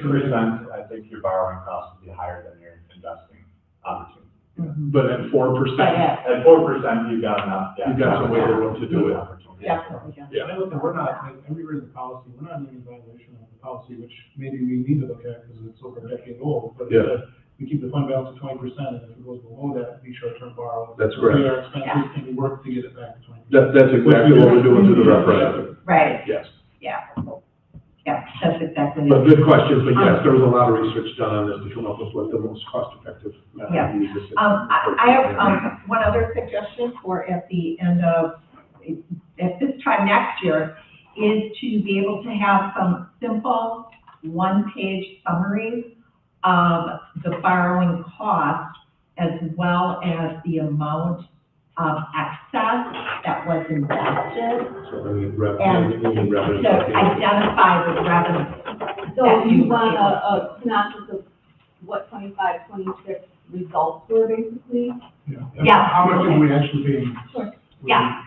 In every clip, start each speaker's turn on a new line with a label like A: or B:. A: percent, I think your borrowing cost would be higher than your investing opportunity.
B: But at four
C: But
B: percent,
C: Mm-hmm. yeah,
A: At four percent, you've got enough, yeah.
B: You've got some wiggle room to do it.
A: Opportunity.
C: definitely, yeah.
B: Yeah.
D: And I look, at- we're not, like, I reread the policy, we're not even in violation of the policy, which maybe we need to look at because it's over a decade old. But it
B: Yeah.
D: said we keep the fund balance at twenty percent, and if it goes below that, we short-term borrow.
B: That's correct.
D: We are expenses, and we work to get it back to twenty.
B: that, that's exactly what we're doing through the referendum,
C: right,
B: yes.
C: yeah. Yeah, that's exactly
B: But
C: it.
B: good questions, but
C: Um,
B: yes, there was a lot of research done on this to come up with what the most cost-effective
C: Yeah.
B: method we use.
C: Um, I, I have, um, one other suggestion for at the end of, at this time next year, is to be able to have some simple, one-page summaries of the borrowing cost as well as the amount of excess that was invested
B: So, I mean, rev- I mean, revenue.
C: to identify the revenue.
E: So you want a, a synopsis of what 25, 26 results were basically?
D: And
C: Yeah.
D: How much did we actually pay?
E: Sure.
C: Yeah.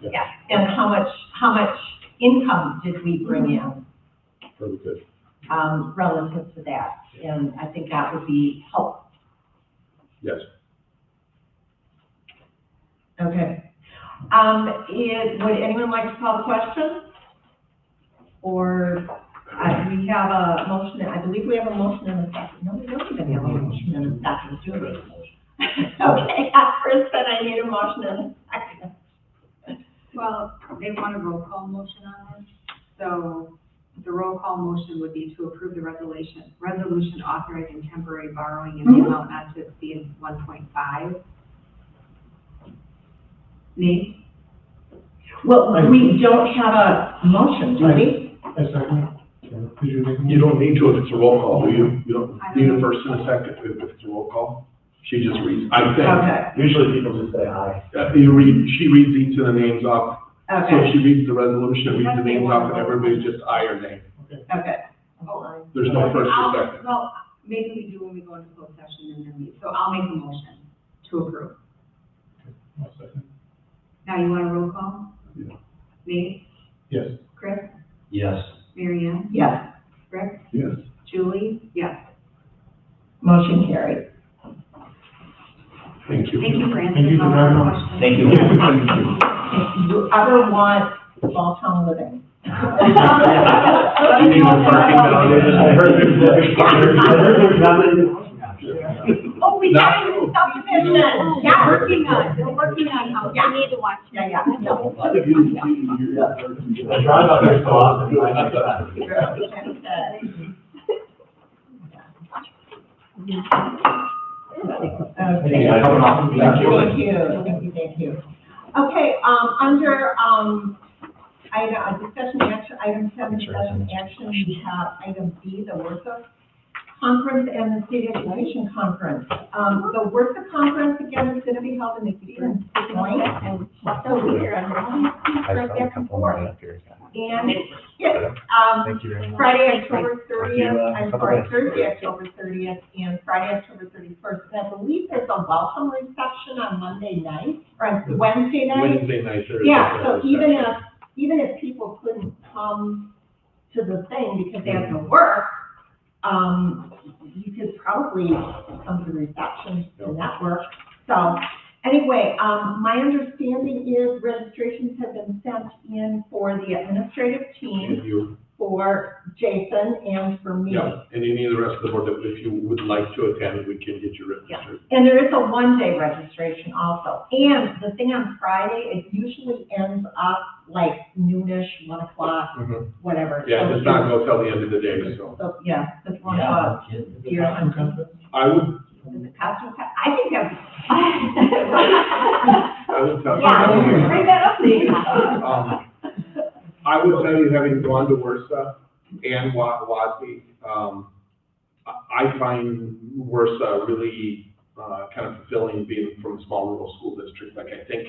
C: Yeah, and how much, how much income did we bring in?
B: Very good.
C: um, relative to that. And I think that would be helpful.
B: Yes.
C: Okay. Um, it, would anyone like to call the question? Or, uh, we have a motion, I believe we have a motion in a second. No, we don't even have a motion in a second, do we? Okay, first, then I need a motion in a second.
F: Well, they want a roll call motion on this, so the roll call motion would be to approve the resolution, resolution authorizing temporary borrowing in the
C: Mhm.
F: amount not to exceed one point five. Me?
C: Well, we don't have a motion, do we?
D: A second? Did you make? a
B: You don't need to if it's a roll call, do you? You don't
F: I don't
B: need a
F: know.
B: first and a second if it's a roll call. She just reads, I think,
C: Okay,
A: Usually people just say aye.
B: uh, you read, she reads each of the names off. So
C: okay,
B: she reads the resolution, reads the names off, and everybody's just aye or nay.
C: okay.
B: There's no first
F: I'll-
B: or second.
F: Well, maybe we do when we go into closed session and then we, so I'll make a motion to approve.
D: A second?
F: Now you want a roll call?
B: Yeah.
F: Me,
D: Yes.
F: Chris,
A: Yes.
F: Mary Ann,
C: Yes.
F: Rick,
B: Yes.
F: Julie, yes.
C: Motion carried.
B: Thank you.
F: Thank you for
D: Thank you
F: answering
D: for
F: all our
D: having us.
F: questions.
A: Thank you.
B: Thank you.
C: If you ever want small town living.
B: You need the parking validated.
A: I heard there's, I heard there's not many-
C: Oh, we got it in subdivision, yeah.
F: We're working on, we're working on how,
C: Yeah.
F: we need to watch.
C: Yeah, yeah, no.
A: I drive out there so often, I think that-
C: Okay. Thank you, thank you, thank you. Okay, um, under, um, item, uh, discussion action, item seven, discussion action, we have item B, the Wortha Conference and the State Education Conference. Um, the Wortha Conference, again, is gonna be held in the Green Point, and what's so weird, I'm like, "Oh, it's right there from Florida." And, yes, um,
G: Thank you very much.
C: Friday, October
G: you,
C: thirtieth,
G: uh,
C: I'm
G: couple
C: sorry,
G: days.
C: Thursday, October thirtieth, and Friday, October thirty-first. And I believe there's a welcome reception on Monday night, or on Wednesday night.
B: Wednesday night, Thursday.
C: Yeah, so
B: Saturday,
C: even if,
B: Sunday.
C: even if people couldn't come to the thing because they had to work, um, you could probably come to the reception and that work. So, anyway, um, my understanding is registrations have been sent in for the administrative team
B: If you,
C: for Jason and for me.
B: yeah, and any of the rest of the board, that if you would like to attend, we can get you registered.
C: And there is a one-day registration also. And the thing on Friday, it usually ends up like noonish, one o'clock,
B: Mhm.
C: whatever.
B: Yeah,
C: So
B: it's not go till the end of the day, so.
C: So, yeah, this one, uh,
D: The costume contest?
B: I would,
C: the costume, co- I think that's.
B: I would tell you.
C: Yeah, bring that up, Nate.
B: Um, I would tell you, having gone to Worcester and Wa- Watsy, um, I I find Worcester really, uh, kind of fulfilling being from a small rural school district. Like, I think,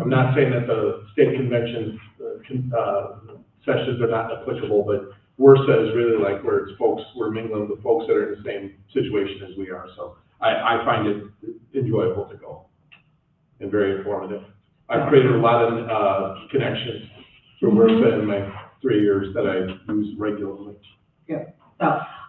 B: I'm not saying that the state convention, uh, con- uh, sessions are not applicable, but Worcester is really like where it's folks, we're mingling with folks that are in the same situation as we are. So I, I find it enjoyable to go and very informative. I've created a lot of, uh, connections through Worcester in my three years that I use regularly.
C: So,